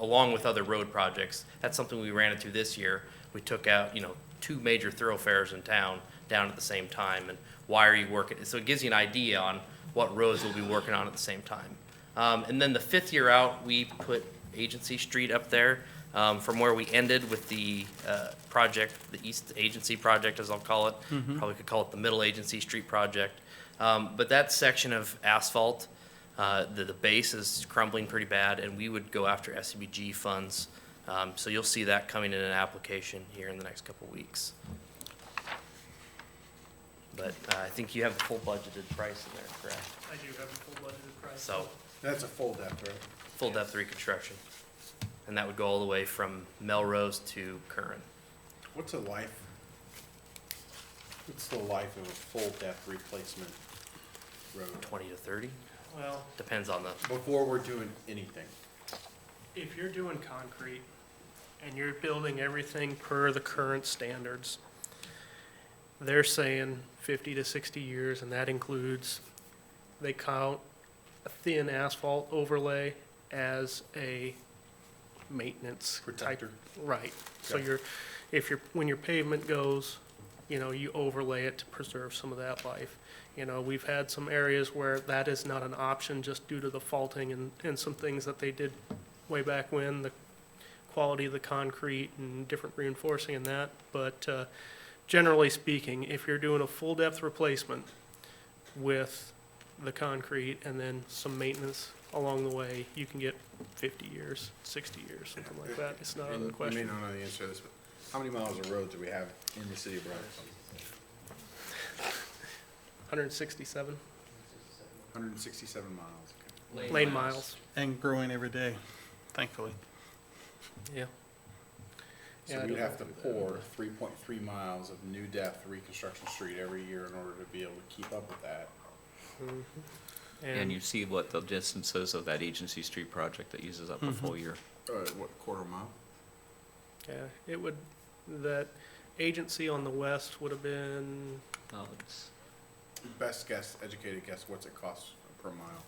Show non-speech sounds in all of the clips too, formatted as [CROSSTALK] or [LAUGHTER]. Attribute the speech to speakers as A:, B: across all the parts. A: along with other road projects. That's something we ran into this year. We took out, you know, two major thoroughfares in town down at the same time, and why are you working? So it gives you an idea on what roads we'll be working on at the same time. Um, and then the fifth year out, we put Agency Street up there, um, from where we ended with the, uh, project, the East Agency Project, as I'll call it. Probably could call it the Middle Agency Street Project. Um, but that section of asphalt, uh, the, the base is crumbling pretty bad, and we would go after SCBG funds. Um, so you'll see that coming in an application here in the next couple weeks. But, uh, I think you have the full budgeted price in there, correct?
B: I do have a full budgeted price.
A: So,
C: That's a full depth, right?
A: full depth reconstruction. And that would go all the way from Melrose to Curran.
C: What's a life? What's the life of a full depth replacement road
A: twenty to thirty,
B: Well,
A: depends on the,
C: before we're doing anything?
B: if you're doing concrete and you're building everything per the current standards, they're saying fifty to sixty years, and that includes, they count a thin asphalt overlay as a maintenance type-
C: Protector.
B: Right, so
C: Okay.
B: you're, if you're, when your pavement goes, you know, you overlay it to preserve some of that life. You know, we've had some areas where that is not an option just due to the faulting and, and some things that they did way back when, the quality of the concrete and different reinforcing and that. But, uh, generally speaking, if you're doing a full-depth replacement with the concrete and then some maintenance along the way, you can get fifty years, sixty years, something like that. It's not
C: And
B: a question.
C: You may not know the answer to this, but how many miles of road do we have in the city of Brownsville?
B: 167
C: Hundred and sixty-seven miles.
B: lane miles.
D: and growing every day, thankfully.
B: Yeah. Yeah,
C: So
B: I
C: we'd
B: don't
C: have to pour three point three miles of new depth reconstruction street every year in order to be able to keep up with that.
B: And Mm-hmm.
E: And you see what the distance is of that agency street project that uses up a full year.
C: Uh, what, quarter mile?
B: yeah, it would, that agency on the west would have been,
E: No, it's-
C: Best guess, educated guess, what's it cost per mile?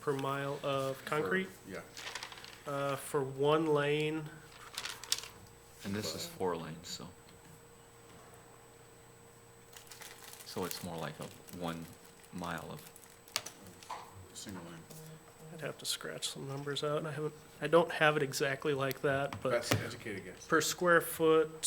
B: per mile of
C: for-
B: concrete,
C: Yeah.
B: uh, for one lane,
E: And this is four lanes, so. So it's more like a one mile of,
C: Single lane.
B: I'd have to scratch some numbers out, and I haven't, I don't have it exactly like that, but
C: Best educated guess.
B: per square foot.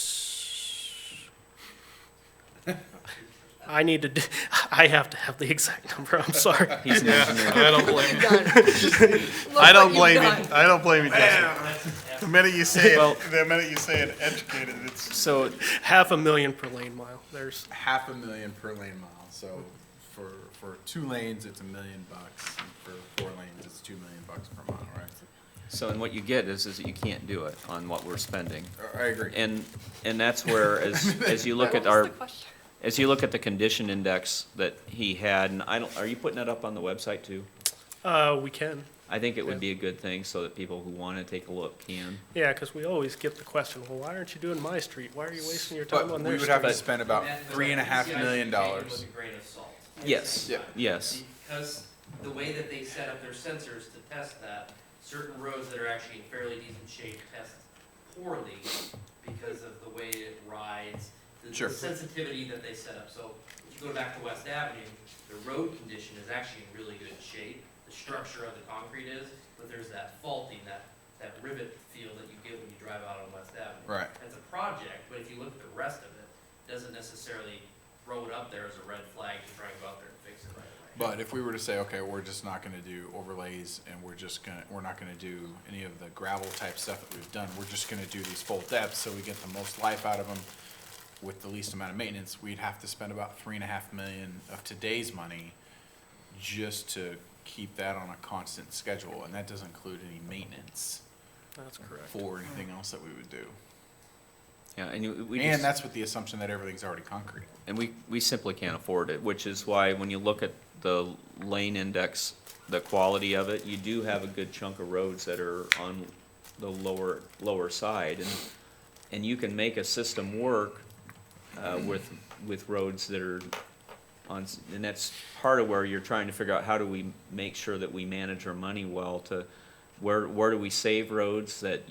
B: I need to, d- [LAUGHS] I have to have the exact [LAUGHS] number, I'm sorry.
E: he's an engineer.
D: I don't blame you. I
F: I
D: don't blame you. I don't blame you, Justin. The minute you say
E: Well-
D: it, the minute you say it, educated, it's
E: So
B: Half a million per lane mile, there's
C: half a million per lane mile. So for for two lanes, it's a million bucks. And for four lanes, it's two million bucks per mile, right?
E: So, and what you get is, is that you can't do it on what we're spending.
C: I agree.
E: And, and that's
D: [LAUGHS]
E: where, as, as you look at our, as you look at the condition index that he had, and I don't, are you putting that up on the website too?
B: Uh, we can.
E: I think it would be a good thing so that people who want to take a look can.
B: Yeah, because we always get the question, well, why aren't you doing my street? Why are you wasting your time
C: but
B: on
C: we
B: their
C: would have
B: street?
C: to
E: But-
C: spend about three and a half million dollars.
A: With a grain of salt.
E: Yes,
C: Yeah.
E: yes.
A: Because the way that they set up their sensors to test that, certain roads that are actually in fairly decent shape test poorly because of the way it rides, the-
C: Sure.
A: the sensitivity that they set up. So if you go back to West Avenue, the road condition is actually in really good shape. The structure of the concrete is, but there's that faulting, that, that rivet feel that you get when you drive out on West Avenue.
C: Right.
A: It's a project, but if you look at the rest of it, it doesn't necessarily throw it up there as a red flag to try and go out there and fix it right away.
C: But if we were to say, okay, we're just not going to do overlays, and we're just gonna, we're not going to do any of the gravel type stuff that we've done. We're just going to do these full depths, so we get the most life out of them with the least amount of maintenance. We'd have to spend about three and a half million of today's money just to keep that on a constant schedule, and that doesn't include any maintenance
B: That's correct.
C: for anything else that we would do.
E: Yeah, and you- we
C: And
E: just,
C: that's with the assumption that everything's already concrete.
E: and we, we simply can't afford it, which is why when you look at the lane index, the quality of it, you do have a good chunk of roads that are on the lower, lower side. And, and you can make a system work, uh, with, with roads that are on, s- and that's part of where you're trying to figure out how do we make sure that we manage our money well to, Where, where do we save roads that